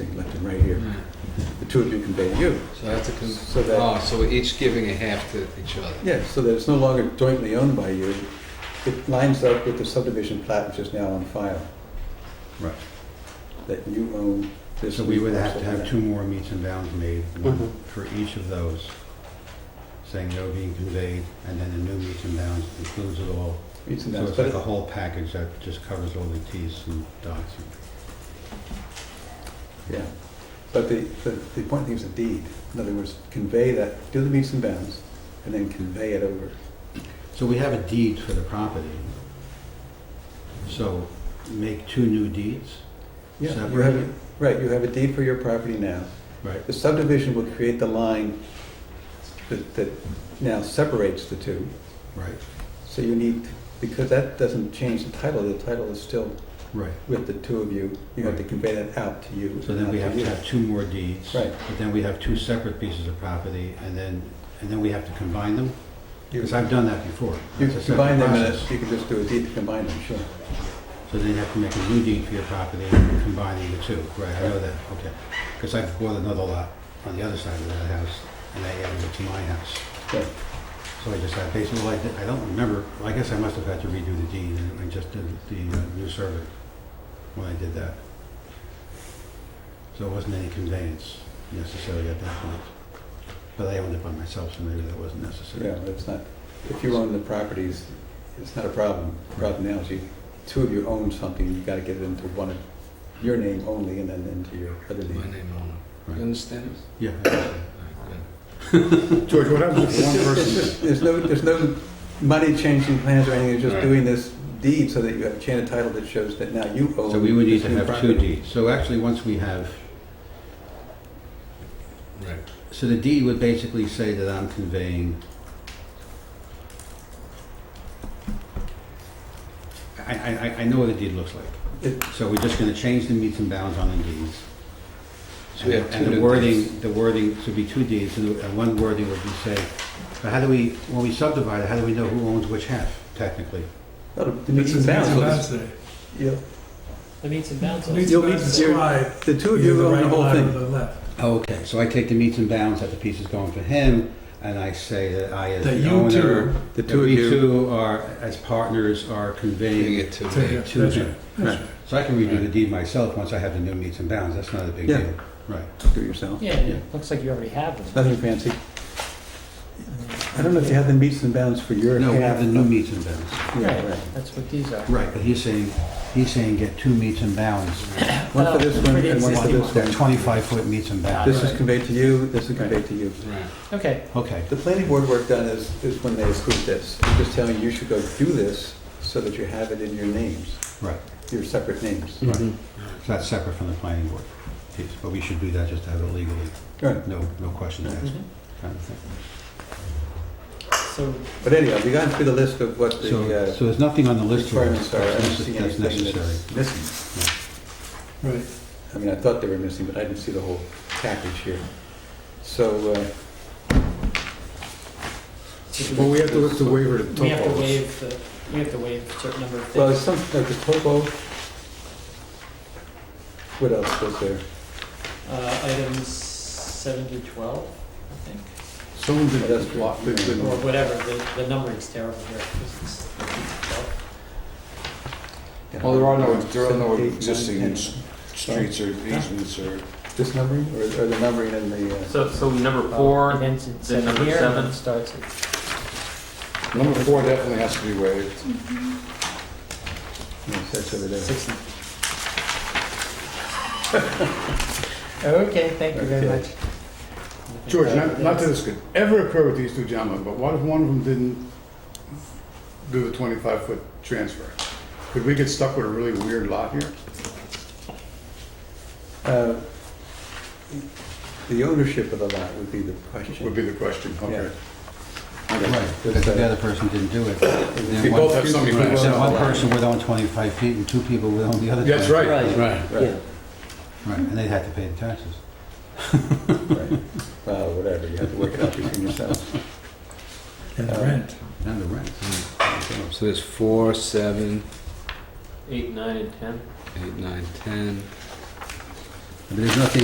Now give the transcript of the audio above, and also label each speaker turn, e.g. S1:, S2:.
S1: right here.
S2: Mm.
S1: The two of you convey you.
S2: So that's a, con-
S1: So that-
S2: oh, so we're each giving a half to each other.
S1: Yeah, so that it's no longer jointly owned by you. It lines up with the subdivision plat which is now on file,
S3: Right.
S1: that you own this.
S3: So we would have to have
S1: parcel.
S3: two more meets and bounds made, one
S1: Mhm.
S3: for each of those, saying they're being conveyed, and then a new meets and bounds includes it all.
S1: Meets and
S3: So
S1: bounds,
S3: it's
S1: but
S3: like a whole package that just covers all the Ts and dots.
S1: Yeah, but the, the, the important thing is a deed. In other words, convey that, do the meets and bounds, and then convey it over.
S3: So we have a deed for the property. So make two new deeds?
S1: Yeah, you
S3: separate,
S1: have, a- right, you have a deed for your property now.
S3: Right,
S1: The subdivision will create the line that, that now separates the two.
S3: right,
S1: So you need, because that doesn't change the title, the title is still
S3: right.
S1: with the two of you. You have to convey that out to you.
S3: So then we have to have two more deeds.
S1: Right.
S3: But then we have two separate pieces of property, and then, and then we have to combine them?
S1: You
S3: Because I've done that before.
S1: you
S3: It's a separate
S1: combine them, and
S3: process.
S1: you can just do a deed to combine them, sure.
S3: So then you have to make a new deed for your property and combining the two, right, I know that, okay. Because I bought another lot on the other side of that house, and I added it to my house.
S1: Right.
S3: So I just, I basically, well, I did- I don't remember, well, I guess I must have had to redo the deed, and I just did the uh, new survey when I did that. So it wasn't any conveyance necessary at that point. But I owned it by myself, so maybe that wasn't necessary.
S1: Yeah, it's not, if you own the properties, it's not a problem. The Problem now is you, two of you own something, you gotta get it into one of, your name only and then into your other
S2: My
S1: name.
S2: name on it.
S3: Right.
S2: You understand?
S3: Yeah. I guess so.
S2: All right, good.
S4: George, what happens if one
S1: It's
S4: person,
S1: just- There's no, there's no money changing plans or anything, it's just
S2: Right.
S1: doing this deed so that you have a chain of title that shows that now you own.
S3: So we would need
S1: this
S3: to
S1: new
S3: have two
S1: property.
S3: deeds. So actually, once we have
S2: Right.
S3: So the deed would basically say that I'm conveying. I, I, I- I know what a deed looks
S1: It-
S3: like. So we're just gonna change the meets and bounds on the deeds.
S2: So we have
S3: And-
S2: two
S3: And the
S2: new
S3: wording, the wording, so it'd be two deeds, and the- and one wording would be say, but how do we, when we subdivide, it, how do we know who owns which half, technically?
S1: Well, The
S4: it's
S1: meets and
S4: a
S1: bounds,
S4: bounds day.
S1: you'll-
S5: The meets and bounds.
S4: Meets
S1: You'll
S4: and
S1: meet-
S4: bounds
S1: you're-
S4: describe
S1: the two of
S4: either
S1: you
S4: the
S1: own the
S4: right
S1: whole
S4: line or
S1: thing.
S4: the left.
S3: Oh, Okay, so I take the meets and bounds that the piece is going for him, and I say that I as
S4: That
S3: the
S4: you
S3: owner.
S4: two,
S1: The
S3: That
S1: two of
S3: we
S1: you,
S3: two are, as partners, are conveying
S2: Bring it to
S4: to
S2: me.
S4: him.
S3: To
S4: that's
S3: him.
S4: right, that's
S3: Right. So I can redo the deed myself once I have the new meets and bounds, that's not a big
S1: Yeah.
S3: deal. Right.
S1: do it yourself.
S5: Yeah,
S3: Yeah.
S5: it looks like you already have them.
S1: Nothing fancy. I don't know if you have the meets and bounds for your
S3: No, we
S1: half.
S3: have the new meets and bounds.
S1: Yeah,
S5: Right,
S1: right.
S5: that's what these are.
S3: Right, but he's saying, he's saying get two meets and bounds.
S1: One for this
S5: Oh,
S1: one
S5: for the
S1: and one for
S5: existing
S1: this
S3: They're
S1: one.
S3: twenty-five foot meets and bounds.
S1: This is conveyed to you, this is conveyed to you.
S2: Right.
S5: Okay,
S3: Okay,
S1: The planning board work done is, is when they approve this. I'm just telling you, you should go do this so that you have it in your names,
S3: right,
S1: your separate names.
S3: right. So that's separate from the planning board piece, but we should do that just to have it legally,
S1: Right.
S3: no, no questions asked, kind of thing.
S5: so
S1: But anyhow, we got through the list of what the
S3: So,
S1: uh,
S3: so there's nothing on the list here
S1: requirements are. I don't
S3: that's
S1: see
S3: that's
S1: anything
S3: necessary.
S1: that's missing.
S4: right.
S1: I mean, I thought they were missing, but I didn't see the whole package here. So, uh,
S4: Well, we have to look to waiver to
S5: we have to
S4: topos.
S5: waive, the- we have to waive a certain number of
S1: well, it's
S5: things.
S1: some, like the topo. What else was there?
S5: Uh, items seven to twelve, I think,
S4: Someone did
S1: That's
S4: this block.
S1: good, good
S5: or
S1: one.
S5: whatever, the, the numbering's terrible here. 'cause it's 12.
S4: Well, there are no- there are no
S1: Seven, eight, nine,
S4: existing
S1: ten.
S4: Streets or easements or.
S1: This numbering, or or the numbering in the, uh,
S6: So, so number four,
S5: It ends at
S6: then
S5: seven
S6: number
S5: here, and then
S6: seven.
S5: it starts at,
S4: Number four definitely has to be waived.
S1: yeah, that's over there.
S5: Six. Okay, thank you very
S1: Okay.
S5: much.
S4: George, not, not that this could ever occur with these two gentlemen, but what if one of them didn't do the twenty-five foot transfer? Could we get stuck with a really weird lot here?
S1: Uh, The ownership of the lot would be the
S4: Would
S1: question.
S4: be the question, okay.
S3: Right, because
S1: uh,
S3: if the other person didn't do it,
S1: We
S3: then one
S4: both have somebody who
S1: Right.
S4: owns
S3: So
S4: it.
S3: one person would own 25 feet and two people would own the other 25.
S4: That's right,
S5: Right.
S4: right.
S1: Right,
S3: Right, and they'd have to pay the taxes.
S1: right. Well, whatever, you have to work it out between yourselves.
S4: And
S1: the
S4: rent.
S3: And the rent.
S2: So there's four, seven,
S6: eight, nine, and ten.
S2: eight, nine, ten.
S3: But there's nothing